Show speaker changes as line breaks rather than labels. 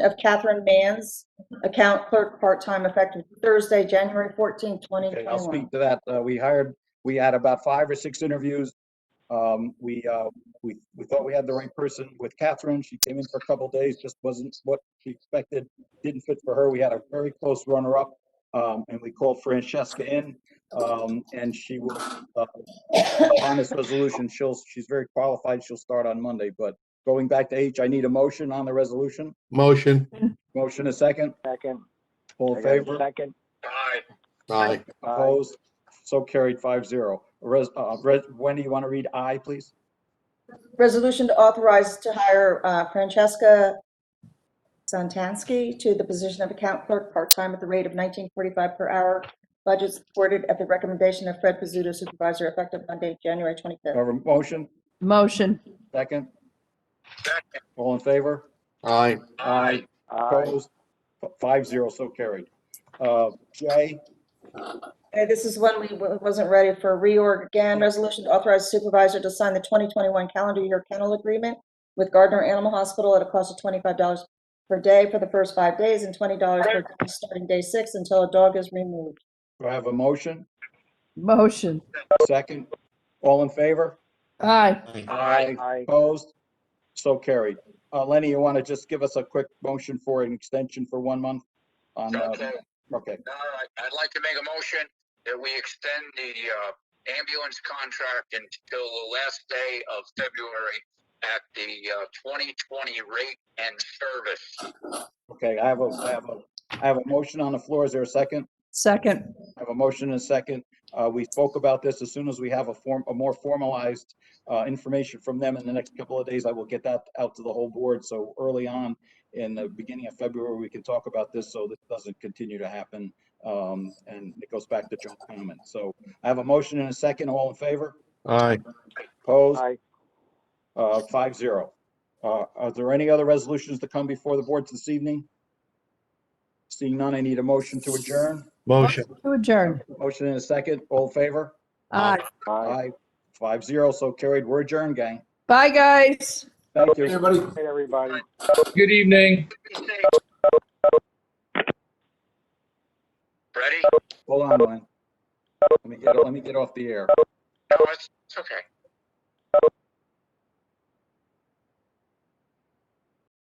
of Catherine Mann's account clerk part-time effective Thursday, January 14,
Okay, I'll
2021.
speak to that. Uh, we hired, we had about five or six interviews. Um, we, uh, we, we thought we had the right person with Catherine. She came in for a couple days, just wasn't what she expected. Didn't fit for her. We had a very close runner-up. Um, and we called Francesca in, um, and she will, uh, on this resolution, she'll, she's very qualified. She'll start on Monday, but going back to H, I need a motion on the resolution.
Motion.
Motion a second.
Second.
All
I
in
got a
favor?
Second.
Aye.
Aye.
Opposed? So carried five zero. Res, uh, Res, Wendy, you want to read I, please?
Resolution to authorize to hire uh, Francesca Santansky to the position of account clerk part-time at the rate of 19.45 per hour. Budget supported at the recommendation of Fred Pizzuto supervisor effective Monday, January 25th.
Have a motion,
Motion.
second? All in favor?
Aye.
Aye.
Aye.
Opposed? Five zero, so carried. Uh, J,
Okay, this is when we wa- wasn't ready for reorg again. Resolution to authorize supervisor to sign the 2021 calendar year kennel agreement with Gardner Animal Hospital at a cost of $25 per day for the first five days and $20 per day starting day six until a dog is removed.
do I have a motion?
Motion.
Second? All in favor?
Aye.
Aye.
Aye.
Opposed? So carried. Uh, Lenny, you want to just give us a quick motion for an extension for one month? On, uh,
Okay,
okay,
all right. I'd like to make a motion that we extend the uh, ambulance contract until the last day of February at the uh, 2020 rate and service.
okay, I have a, I have a, I have a motion on the floor. Is there a second?
Second.
I have a motion and a second. Uh, We spoke about this. As soon as we have a form, a more formalized uh, information from them in the next couple of days, I will get that out to the whole board. So early on, in the beginning of February, we can talk about this so this doesn't continue to happen. Um, And it goes back to Joe's comment. So I have a motion and a second. All in favor?
Aye.
Opposed?
Aye.
Uh, Five zero. Uh, Are there any other resolutions to come before the board this evening? Seeing none, I need a motion to adjourn.
Motion.
To adjourn.
Motion and a second. All in favor?
Aye.
Aye.
Aye, five zero, so carried. We're adjourned, gang.
Bye, guys.
Thank you.
Hey, everybody.
Good evening.
Ready?
Hold on, Len. Let me get, let me get off the air.
No, it's, it's okay.